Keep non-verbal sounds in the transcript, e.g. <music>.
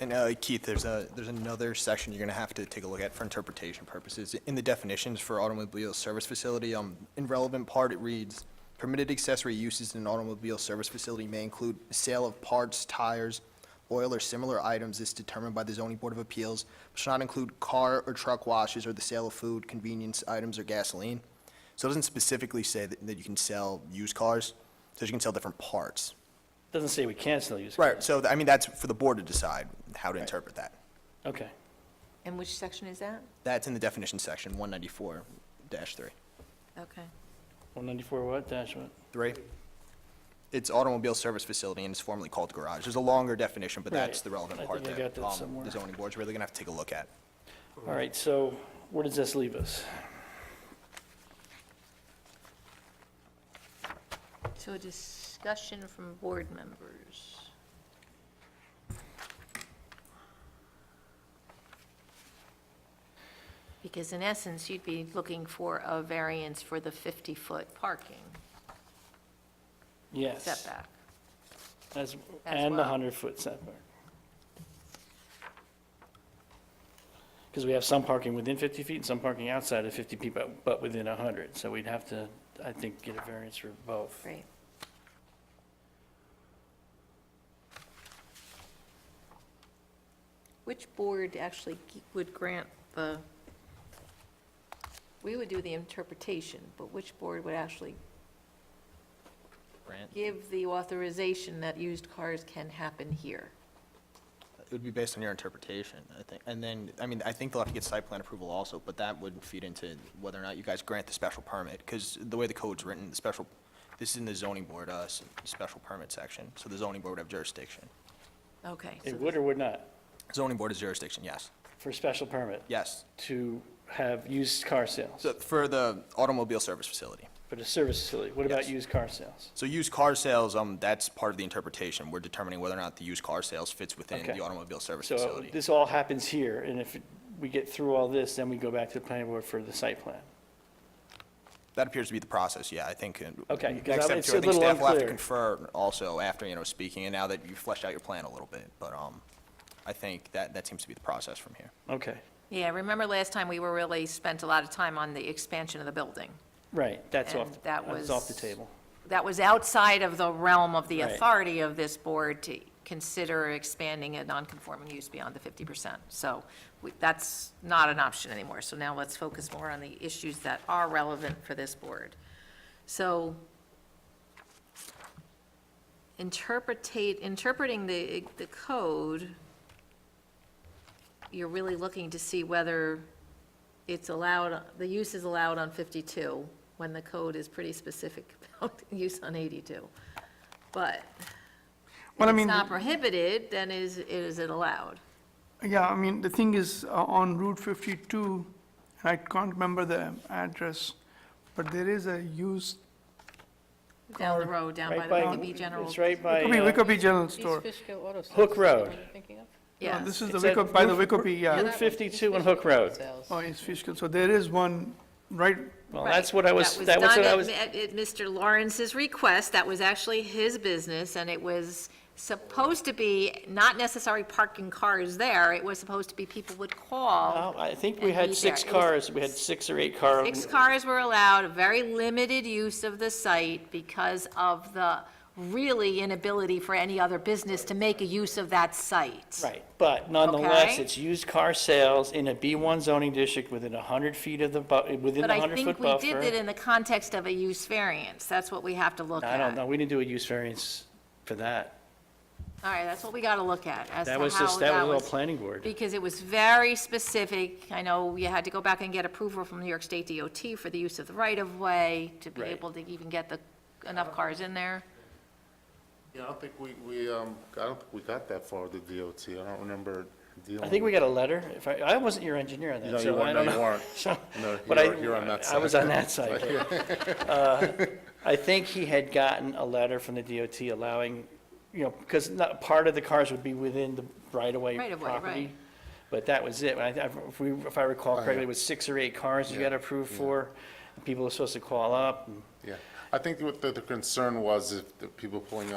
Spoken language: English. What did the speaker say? And uh, Keith, there's a, there's another section you're gonna have to take a look at for interpretation purposes. In the definitions for automobile service facility, um, in relevant part, it reads, permitted accessory uses in an automobile service facility may include sale of parts, tires, oil, or similar items is determined by the zoning board of appeals, should not include car or truck washes or the sale of food, convenience items, or gasoline. So it doesn't specifically say that, that you can sell used cars, it says you can sell different parts. Doesn't say we can still use. Right, so, th- I mean, that's for the board to decide how to interpret that. Okay. And which section is that? That's in the definition section, one ninety-four three. Okay. 194 what dash what? Three? It's automobile service facility and it's formerly called garage. There's a longer definition, but that's Right. the relevant I part think I there. got that Um, somewhere. The zoning board's really gonna have to take a look at. All right, so where does this leave us? So a discussion from board members. Because in essence, you'd be looking for a variance for the 50-foot parking Yes. setback. As, and the well. 100-foot setback. Because we have some parking within 50 feet and some parking outside of 50 feet, but, but within 100. So we'd have to, I think, get a variance for both. Right. Which board actually g- would grant the, we would do the interpretation, but which board would actually Grant? give the authorization that used cars can happen here? It would be based on your interpretation, I think. And then, I mean, I think they'll have to get site plan approval also, but that would feed into whether or not you guys grant the special permit. Because the way the code's written, the special, this is in the zoning board, uh, s- special permit section, so the zoning board would have jurisdiction. Okay. so It would or would not, Zoning board is jurisdiction, yes. for special permit, Yes. to have used car sales, So for the automobile service facility. for the service facility. What about Yes. used car sales? So used car sales, um, that's part of the interpretation. We're determining whether or not the used car sales fits within Okay. the automobile service So uh, facility. this all happens here, and if we get through all this, then we go back to the planning board for the site plan. That appears to be the process, yeah, I think. uh, Okay, 'cause Next I'm- step it's too, I a think little staff will have to unclear. confer also after, you know, speaking, and now that you've fleshed out your plan a little bit, but, um, I think that, that seems to be the process from here. Okay, Yeah, remember last time we were really, spent a lot of time on the expansion of the building. right, that's off, And the- that that's off the was- table. That was outside of the realm of the Right. authority of this board to consider expanding a non-conforming use beyond the 50%. So we- that's not an option anymore. So now let's focus more on the issues that are relevant for this board. So interpretate, interpreting the, the code, you're really looking to see whether it's allowed, the use is allowed on 52, when the code is pretty specific <laughs> about use on 82. But if Well, I it's mean, not prohibited, then is, is it allowed? yeah, I mean, the thing is, uh, on Route 52, and I can't remember the address, but there is a used, Down the road, down by Right the by, E, Wickaby General. it's right by could be uh, Wicopee General East Store. Fishkill Auto Sales. Hook is that the one Road. you're thinking of? No, Yes, This is the It's at Wicop, by the Roof- Wicopee, yeah. Yeah, that one, 52 and East Hook Fishkill Auto Road. Sales. Oh, East Fishkill, so there is one right, Well, Right. that's what I was, that was done what I at- was, At at Mr. Lawrence's request, that was actually his business, and it was supposed to be not necessarily parking cars there, it was supposed to be people would call. Well, I think we And had be six there. It was- cars, we had six or eight cars. Six cars were allowed, a very limited use of the site because of the really inability for any other business to make a use of that site. Right, but nonetheless, Okay. it's used car sales in a B1 zoning district within 100 feet of the, bu- within But the I think 100-foot we buffer. did it in the context of a use variance, that's what we have to look at. I don't know, we didn't do a use variance for that. All right, that's what we gotta look at, as to how That that was. was just, that was all planning board. Because it was very specific. I know you had to go back and get approval from New York State DOT for the use of the right-of-way to be Right. able to even get the, enough cars in there. Yeah, I don't think we, we, um, I don't think we got that far with the DOT. I don't remember dealing. I think we got a letter, if I, I wasn't your engineer on No, that, you so I weren't, don't no, you know. <laughs> weren't. So- No, but I- you're- you're on that I was side. on that side. <laughs> but, uh, I think he had gotten a letter from the DOT allowing, you know, because not, part of the cars would be within the right-of-way Right of way, property. right. But that was it. I, I- if we, if I Oh, recall correctly, it was six or eight cars you got approved for. People were supposed to call up and Yeah, I think what the, the concern was if the people pulling